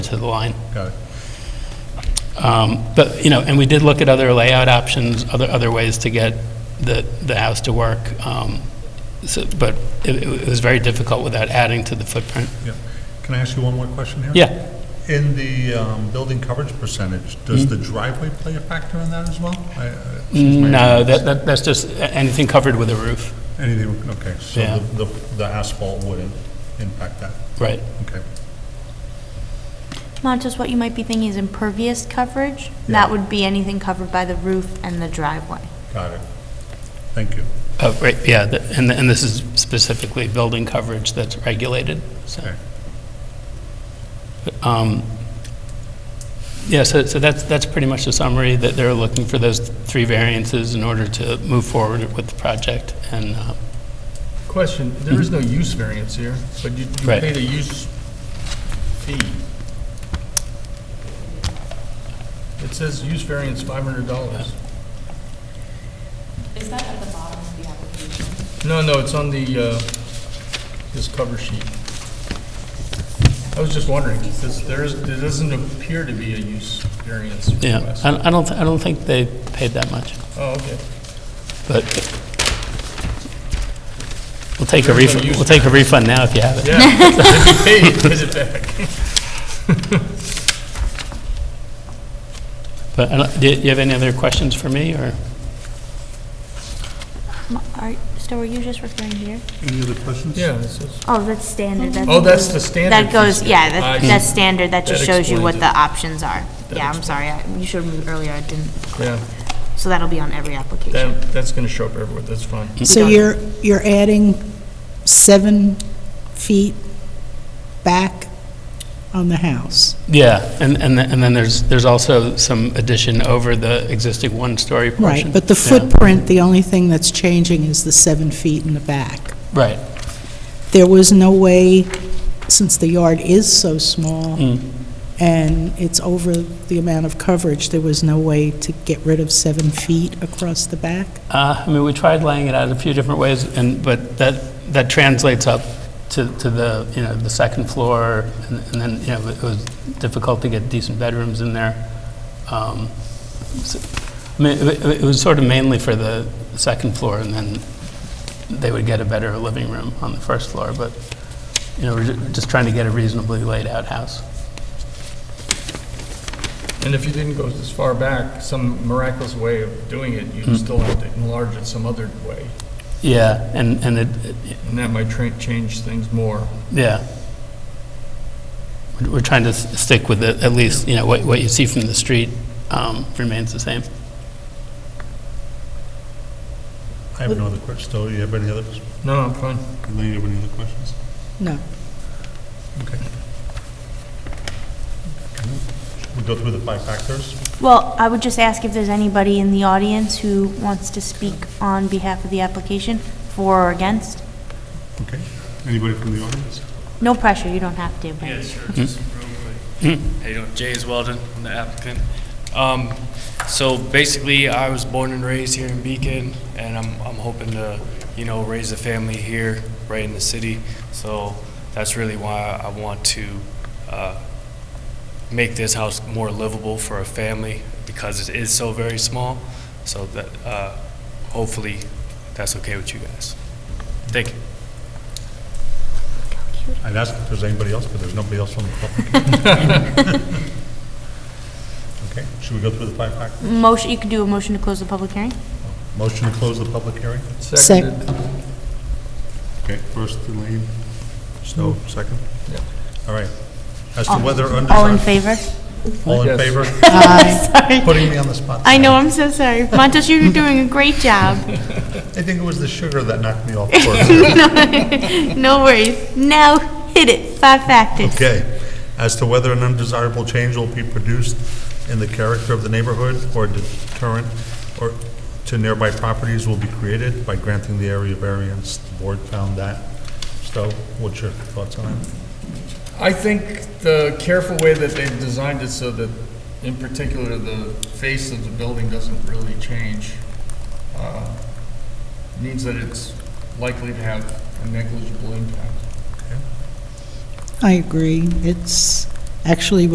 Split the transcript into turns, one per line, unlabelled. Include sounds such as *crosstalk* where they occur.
to the line.
Got it.
Um, But, you know, and we did look at other layout options, other, other ways to get the, the house to work. um, so- But it, it was very difficult without adding to the footprint.
Yeah. Can I ask you one more question here?
Yeah.
In the um, building coverage percentage, does
Mm-hmm.
the driveway play a factor in that as well? I- I- excuse my
Mm, No, that,
ignorance.
that- that's just a- anything covered with a roof.
Anything, okay, so
Yeah.
the- the the asphalt wouldn't impact that,
Right.
okay.
Montes, what you might be thinking is impervious coverage.
Yeah.
That would be anything covered by the roof and the driveway.
Got it. Thank you.
Oh, right, yeah, th- and, and this is specifically building coverage that's regulated, so.
Okay.
Um, Yeah, so, so that's, that's pretty much the summary, that they're looking for those three variances in order to move forward with the project, and, uh,
Question, there is no use variance here, but you you
Mm-hmm. Right.
paid a use fee. It says use variance $500.
Is that at the bottom of the application?
No, no, it's on the, uh, this cover sheet. I was just wondering, because there is, there doesn't appear to be a use variance
yeah,
request.
I I don't, I don't think they paid that much,
Oh, okay.
but we'll take a
Everybody
refund,
used
we'll take a refund now if you have it.
Yeah, *laughs* if you paid, give it
*laughs*
back.
But, I don't- do you do you have any other questions for me, or?
Mo- are- So are you just referring here?
Any other questions?
Yeah, it says,
Oh, that's standard.
Oh, that's the standard
That goes,
fee
yeah,
schedule. I
that-
see.
that's standard. That just
That
shows you what the
explains
options are.
That
Yeah, I'm sorry. I- You showed me earlier. I didn't.
yeah,
So that'll be on every application.
that, that's going to show up everywhere, that's fine.
So
Done.
you're, you're adding seven feet back on the house?
Yeah, and, and, th- and then there's, there's also some addition over the existing one-story portion.
Right, but the
Yeah,
footprint, the only thing that's changing is the seven feet in the back.
Right,
There was no way, since the yard is so small, and it's over the amount of coverage, there was no way to get rid of seven feet across the back?
uh, I mean, we tried laying it out a few different ways, and, but that, that translates up to, to the, you know, the second floor, and and then, you know, it was difficult to get decent bedrooms in there. Um, so- I mean, it it- it was sort of mainly for the second floor, and then they would get a better living room on the first floor, but, you know, we're ju- just trying to get a reasonably laid-out house.
And if you didn't go this far back, some miraculous way of doing it, you'd still have to enlarge it some other way,
Yeah, and, and it, it-
and that might tra- change things more.
Yeah. We're- We're trying to s- stick with it, at least, you know, what, what you see from the street um, remains the same.
I have no other questions. Do you have any other,
No, I'm fine.
Elaine, you have any other questions?
No.
Okay. We go through the five factors?
Well, I would just ask if there's anybody in the audience who wants to speak on behalf of the application, for or against.
Okay. Anybody from the audience?
No pressure. You don't have to. but-
Yeah, sure, just real quick. How you doing? Jays Weldon, I'm the applicant. Um, So basically, I was born and raised here in Beacon, and I'm, I'm hoping to, you know, raise a family here, right in the city. So that's really why I want to uh, make this house more livable for a family, because it is so very small. So that, uh, hopefully, that's okay with you guys. Thank you.
I'd ask if there's anybody else, but there's nobody else on the public. *laughs* Okay, should we go through the five factors?
Motion, you could do a motion to close the public hearing?
Motion to close the public hearing?
Sec-
Seconded.
Okay, first Elaine, Snow, second?
Yeah.
All right. As to whether under...
Oh. All in favor?
All in
Yes.
favor?
*laughs* Sorry.
Putting me on the spot.
I know, I'm so sorry. Montes, you're doing a great job. *laughs*
I think it was the sugar that knocked me off course.
No worries. Now, hit it. Five factors.
Okay. As to whether an undesirable change will be produced in the character of the neighborhood or deterrent or to nearby properties will be created by granting the area variance. The board found that. So what's your thoughts on it?
I think the careful way that they've designed it so that, in particular, the face of the building doesn't really change, uh, means that it's likely to have a negligible impact.
I agree. It's actually